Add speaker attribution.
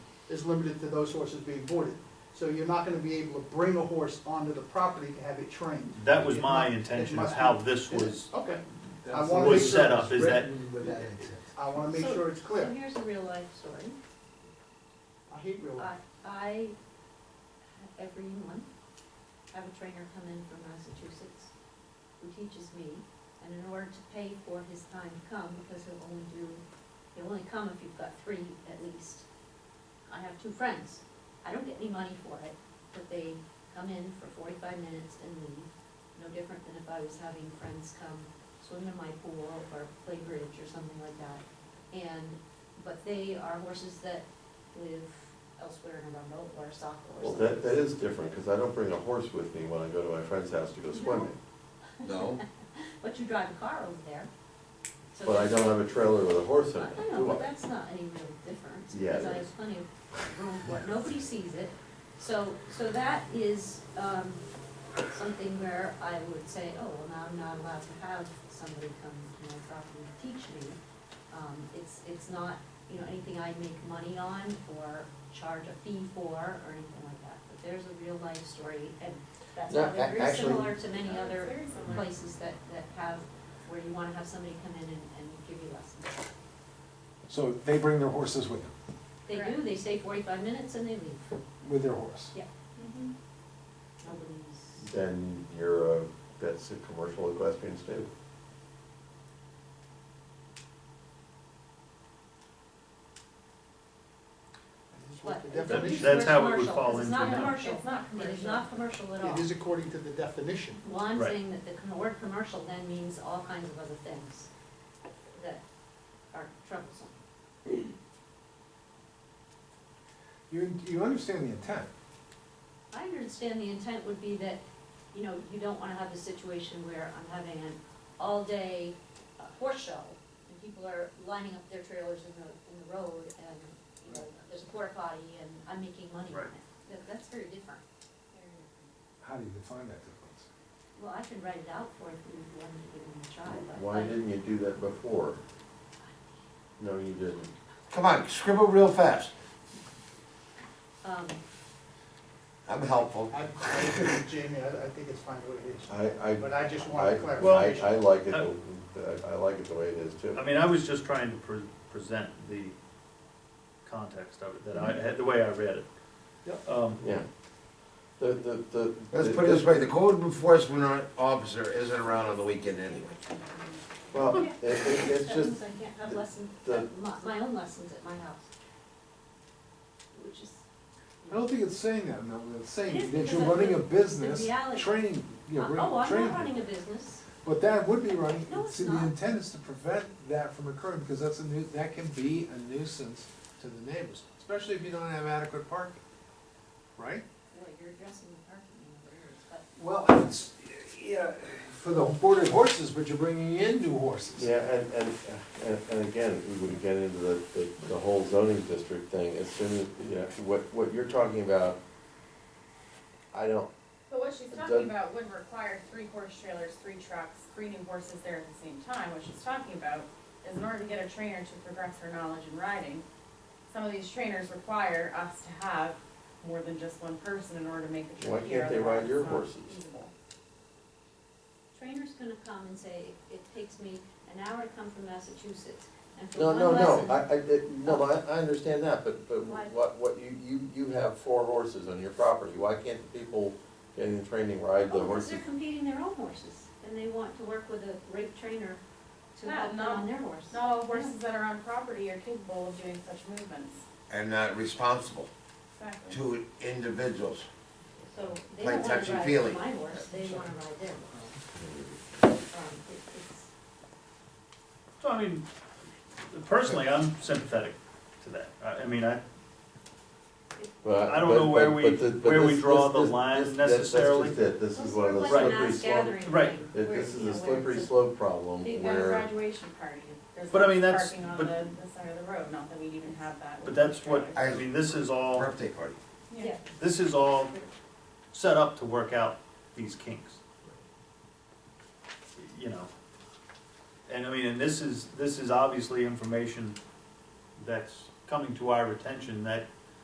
Speaker 1: is limited to those horses being boarded. So you're not gonna be able to bring a horse onto the property to have it trained.
Speaker 2: That was
Speaker 1: It
Speaker 2: my
Speaker 1: mu- it
Speaker 2: intention
Speaker 1: must
Speaker 2: of how
Speaker 1: be-
Speaker 2: this
Speaker 1: it is.
Speaker 2: was,
Speaker 1: Okay,
Speaker 3: That's the
Speaker 1: wanna
Speaker 3: way
Speaker 1: make
Speaker 3: it's
Speaker 1: sure
Speaker 2: it's set up, is that-
Speaker 3: written with that intent.
Speaker 1: I wanna make
Speaker 4: So-
Speaker 1: sure it's
Speaker 4: So
Speaker 1: clear.
Speaker 4: here's a real life story.
Speaker 1: I hate real
Speaker 4: I,
Speaker 1: life.
Speaker 4: I, every month, have a trainer come in from Massachusetts who teaches me, and in order to pay for his time to come, because he'll only do, he'll only come if you've got three at least. I have two friends, I don't get any money for it, but they come in for forty-five minutes and leave. No different than if I was having friends come swim in my pool or play bridge or something like that. And, but they are horses that live elsewhere in Arundel or Saco or
Speaker 5: Well,
Speaker 4: something.
Speaker 5: that, that is different, because I don't bring a horse with me when I go to my friend's house to go swimming.
Speaker 3: No,
Speaker 4: But you drive a car over there. So
Speaker 5: But I
Speaker 4: that's-
Speaker 5: don't have a trailer with a horse in
Speaker 4: I
Speaker 5: it,
Speaker 4: I know,
Speaker 5: do
Speaker 4: but
Speaker 5: I?
Speaker 4: that's not any real difference,
Speaker 5: Yeah,
Speaker 4: because
Speaker 5: it
Speaker 4: I
Speaker 5: is.
Speaker 4: have plenty of room for it, nobody sees it. So, so that is, um, something where I would say, oh, well, now I'm not allowed to have somebody come to my property to teach me. Um, it's, it's not, you know, anything I make money on or charge a fee for or anything like that, but there's a real life story, and that's
Speaker 6: No,
Speaker 4: probably
Speaker 6: a-
Speaker 4: very
Speaker 6: actually-
Speaker 4: similar to many
Speaker 6: Yeah, it's
Speaker 4: other
Speaker 6: very similar.
Speaker 4: places that, that have, where you wanna have somebody come in and, and give you lessons.
Speaker 7: So they bring their horses with them,
Speaker 4: They do,
Speaker 6: Correct.
Speaker 4: they stay forty-five minutes and they leave.
Speaker 7: with their horse.
Speaker 4: Yeah.
Speaker 8: Mm-hmm.
Speaker 6: Mhm.
Speaker 4: Nobody's,
Speaker 5: Then you're, a- that's a commercial equestrian stable.
Speaker 1: This is what
Speaker 4: what?
Speaker 1: the
Speaker 4: It's
Speaker 2: That-
Speaker 4: a
Speaker 1: definition-
Speaker 2: that- that's how it would
Speaker 4: commercial.
Speaker 2: fall
Speaker 4: It's
Speaker 2: into
Speaker 4: not
Speaker 2: that.
Speaker 4: commercial,
Speaker 6: It's not
Speaker 4: it is not commercial at all.
Speaker 1: It is according to the definition.
Speaker 4: Well, I'm
Speaker 2: Right.
Speaker 4: saying that the com- word commercial then means all kinds of other things that are troublesome.
Speaker 7: You, you understand the intent.
Speaker 4: I understand the intent would be that, you know, you don't wanna have a situation where I'm having an all-day uh, horse show, and people are lining up their trailers in the, in the road, and, you know, there's a porta potty, and I'm making money on
Speaker 2: Right.
Speaker 4: it. That, that's very different.
Speaker 7: How do you define that difference?
Speaker 4: Well, I can write it out for you if you want me to give it a try, but.
Speaker 5: Why didn't you do that before? No, you didn't.
Speaker 6: Come on, scribble real fast.
Speaker 4: Um,
Speaker 6: I'm helpful.
Speaker 1: I, I agree with Jamie, I, I think it's fine the way it is.
Speaker 5: I, I,
Speaker 1: But I just
Speaker 5: I,
Speaker 1: wanted
Speaker 5: I,
Speaker 1: clarification.
Speaker 5: I like it, the- I like it the way it is too.
Speaker 2: I mean, I was just trying to pre- present the context of it, that I, had the way I read it.
Speaker 1: Mm-hmm. Yep.
Speaker 2: Um,
Speaker 5: Yeah. The, the, the.
Speaker 6: Let's put it this way, the code enforcement officer isn't around on the weekend anyway.
Speaker 5: Well, it, it, it's
Speaker 4: that
Speaker 5: just,
Speaker 4: means I can't have lessons,
Speaker 5: the-
Speaker 4: my, my own lessons at my house. Which is.
Speaker 7: I don't think it's saying that, no, it's
Speaker 4: It
Speaker 7: saying
Speaker 4: is
Speaker 7: that you're
Speaker 4: because of
Speaker 7: running a
Speaker 4: the- the
Speaker 7: business,
Speaker 4: reality.
Speaker 7: training, you know,
Speaker 4: Uh, Oh,
Speaker 7: bring-
Speaker 4: I'm not
Speaker 7: training.
Speaker 4: running a business,
Speaker 7: But that would be running,
Speaker 4: No, it's
Speaker 7: see, the
Speaker 4: not.
Speaker 7: intent is to prevent that from occurring, because that's a nu, that can be a nuisance to the neighbors, especially if you don't have adequate parking, right?
Speaker 4: well, you're addressing the parking in the areas, but
Speaker 7: Well, it's, yeah, for the boarded horses, but you're bringing in new horses.
Speaker 5: Yeah, and, and, and, and again, we would get into the, the, the whole zoning district thing, as soon as, you know, what, what you're talking about, I don't,
Speaker 8: But what she's
Speaker 5: It
Speaker 8: talking
Speaker 5: doesn't-
Speaker 8: about would require three horse trailers, three trucks, three new horses there at the same time. What she's talking about is in order to get a trainer to progress her knowledge in riding, some of these trainers require us to have more than just one person in order to make the
Speaker 5: Why
Speaker 8: trip here.
Speaker 5: can't they ride
Speaker 8: otherwise
Speaker 5: your
Speaker 8: it's not
Speaker 5: horses?
Speaker 8: feasible.
Speaker 4: trainer's gonna come and say, it takes me an hour to come from Massachusetts, and for
Speaker 5: no,
Speaker 4: one
Speaker 5: no,
Speaker 4: lesson.
Speaker 5: no, I, I, it- no, I, I understand that, but, but
Speaker 4: Why?
Speaker 5: what, what, you, you, you have four horses on your property, why can't the people getting the training
Speaker 4: Oh,
Speaker 5: ride the
Speaker 4: because
Speaker 5: horses?
Speaker 4: they're competing their own horses, and they want to work with a great trainer to
Speaker 8: Yeah,
Speaker 4: help them
Speaker 8: no.
Speaker 4: on their horse.
Speaker 8: Not all horses that are on property are capable of doing such movements.
Speaker 6: And not responsible
Speaker 8: Exactly.
Speaker 6: to individuals.
Speaker 4: So they
Speaker 6: Like
Speaker 4: don't wanna
Speaker 6: touchy
Speaker 4: ride
Speaker 6: feely.
Speaker 4: my horse, they wanna ride their horse. Um, it- it's-
Speaker 2: So, I mean, personally, I'm sympathetic to that. I, I mean, I,
Speaker 5: But-
Speaker 2: I don't
Speaker 5: but-
Speaker 2: know where
Speaker 5: but-
Speaker 2: we-
Speaker 5: but the- but
Speaker 2: where we
Speaker 5: this-
Speaker 2: draw
Speaker 5: this-
Speaker 2: the
Speaker 5: this-
Speaker 2: line
Speaker 5: this- that- that's just
Speaker 2: necessarily.
Speaker 5: it. This is one of those
Speaker 4: Well, it's like a
Speaker 5: slippery
Speaker 4: mass
Speaker 5: slope,
Speaker 4: gathering
Speaker 2: Right.
Speaker 4: thing,
Speaker 5: It-
Speaker 4: where, you
Speaker 5: this is a
Speaker 4: know, where
Speaker 5: slippery
Speaker 4: it's a-
Speaker 5: slope problem
Speaker 8: They've got a
Speaker 5: where.
Speaker 8: graduation party. There's
Speaker 2: But I mean, that's-
Speaker 8: lots of parking on
Speaker 2: but-
Speaker 8: the, the side of the road, not that we even have that.
Speaker 2: but
Speaker 8: with
Speaker 2: that's
Speaker 8: horse
Speaker 2: what,
Speaker 8: trailers.
Speaker 2: I mean, this is all,
Speaker 6: Birthday party.
Speaker 4: Yeah,
Speaker 2: this is all set up to work out these kinks. You know, and I mean, and this is, this is obviously information that's coming to our attention that